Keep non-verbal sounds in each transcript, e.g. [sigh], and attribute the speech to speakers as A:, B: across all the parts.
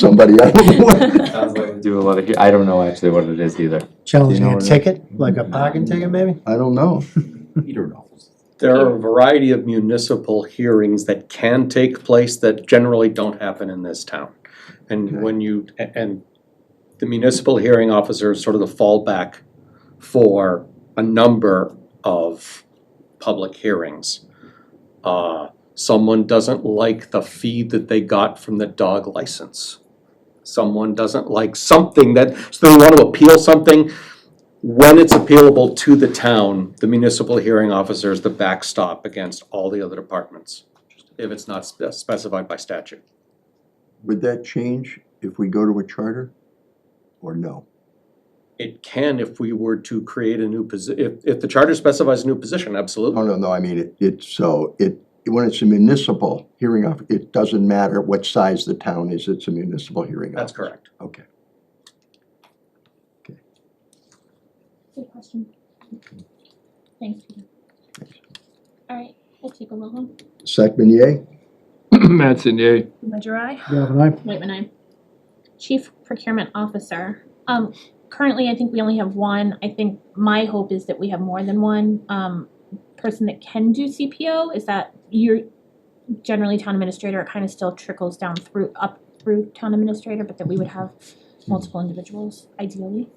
A: somebody out of the way.
B: Sounds like they do a lot of, I don't know actually what it is either.
C: Challenging
B: know
C: a
B: what it-
C: ticket, like a parking ticket maybe?
A: I don't know.
D: Peter knows.
E: There are a variety of municipal hearings that can take place that generally don't happen in this town.
A: Okay.
E: And when you, a- and the municipal hearing officer is sort of the fallback for a number of public hearings. Uh, someone doesn't like the fee that they got from the dog license. Someone doesn't like something that, so they want to appeal something, when it's appealable to the town, the municipal hearing officer is the backstop against all the other departments, if it's not spe- specified by statute.
A: Would that change if we go to a charter? Or no?
E: It can if we were to create a new posi, if, if the charter specifies a new position,
A: Oh,
E: absolutely.
A: no, no, I mean, it, it's so, it, when it's a municipal hearing off, it doesn't matter what size the town is, it's a municipal hearing.
E: That's
A: officer.
E: correct.
A: Okay.
F: Good question. Thanks, Peter. All right, we'll take a little one.
A: Second, yay?
B: Mattson, yay.
F: Ledger I.
C: Galvin aye.
F: Wait, when I, Chief Procurement Officer. Um, currently, I think we only have one. I think my hope is that we have more than one, um, person that can do CPO. Is that you're generally town administrator, it kind of still trickles down through, up through town administrator, but that we would have multiple individuals ideally.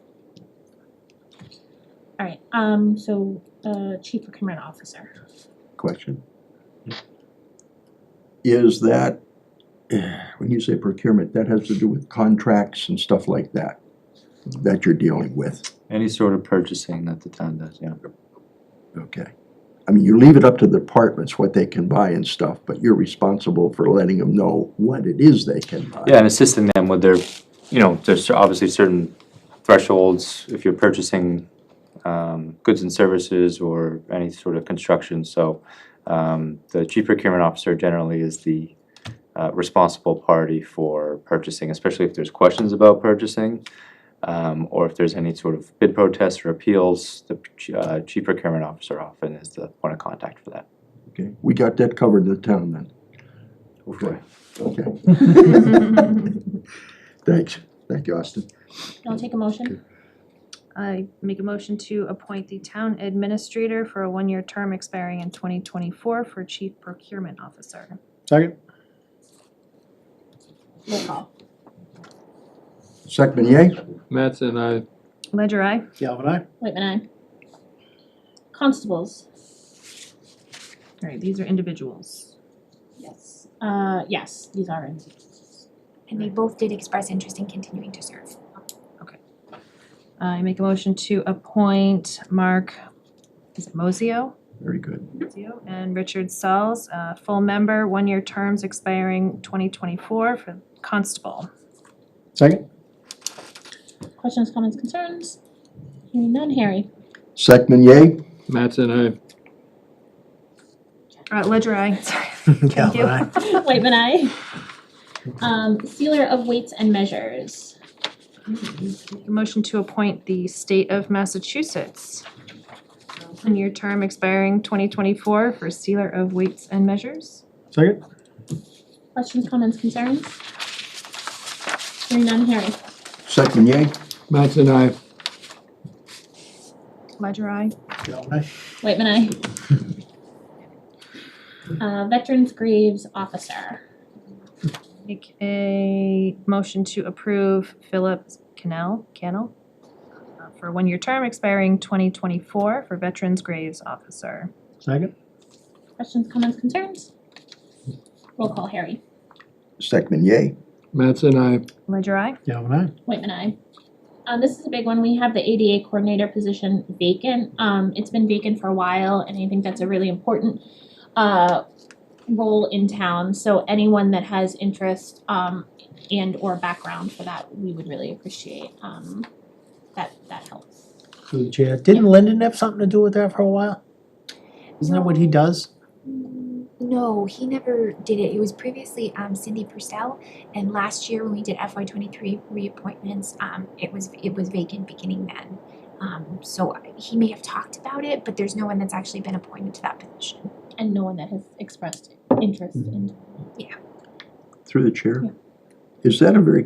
F: All right, um, so, uh, Chief Procurement Officer.
A: question. Is that, eh, when you say procurement, that has to do with contracts and stuff like that, that you're dealing with,
B: Any sort of purchasing that the town does, yeah.
A: okay? I mean, you leave it up to the departments what they can buy and stuff, but you're responsible for letting them know what it is they can buy.
B: Yeah, and assisting them with their, you know, there's obviously certain thresholds if you're purchasing um, goods and services or any sort of construction. So um, the chief procurement officer generally is the uh, responsible party for purchasing, especially if there's questions about purchasing. um, Or if there's any sort of bid protests or appeals, the ch- uh, chief procurement officer often is the point of contact for that.
A: Okay, we got that covered in the town then. Okay. Okay. Thanks, thank you, Austin.
F: I'll take a motion.
G: [laughs] I make a motion to appoint the town administrator for a one-year term expiring in twenty twenty-four for chief procurement officer.
C: Second?
F: Roll call.
A: Second, yay?
H: Mattson, I.
G: Ledger I.
C: Galvin aye.
F: Wait, when I. Constables.
G: Alright, these are individuals.
F: Yes. Uh, yes, these are in.
I: And they both did express interest in continuing to serve.
G: I make a motion to appoint Mark, is it Mozio?
A: Very good.
G: Mozio and Richard Sells, uh, full member, one-year terms expiring twenty twenty-four for constable.
C: Second?
F: Questions, comments, concerns? Hearing none, Harry. [laughs]
A: Second, yay?
H: Mattson, I.
G: Uh, ledger I, [laughs] sorry. Thank you.
C: Galvin aye.
F: Wait, when I. Um, sealer of weights and measures.
G: Make a motion to appoint the state of Massachusetts. One-year term expiring twenty twenty-four for sealer of weights and measures.
C: Second?
F: Questions, comments, concerns? Hearing none, Harry.
A: Second, yay?
H: Mattson, I.
G: Ledger I.
C: Galvin aye.
F: Wait, when I. Uh, veterans graves officer.
G: Make a motion to approve Philip Cannell, Cannell? uh, For a one-year term expiring twenty twenty-four for Veterans Graves Officer.
C: Second?
F: Questions, comments, concerns? Roll call, Harry.
A: Second, yay?
H: Mattson, I.
G: Ledger I.
C: Galvin aye.
F: Whitman, I. Um, this is a big one. We have the ADA coordinator position vacant. Um, it's been vacant for a while, and I think that's a really important uh, role in town. So anyone that has interest um, and or background for that, we would really appreciate. Um, that that helps.
C: Through the chair. Didn't Lyndon have something to do with that for a while? Isn't that what he does?
I: Mm, No, he never did it. It was previously um, Cindy Purcell, and last year when we did FY twenty-three reappointments, um, it was it was vacant beginning then. Um, so he may have talked about it, but there's no one that's actually been appointed to that position.
F: And no one that has expressed interest in
I: Yeah.
A: Through the chair?
F: Yeah.
A: Is that a very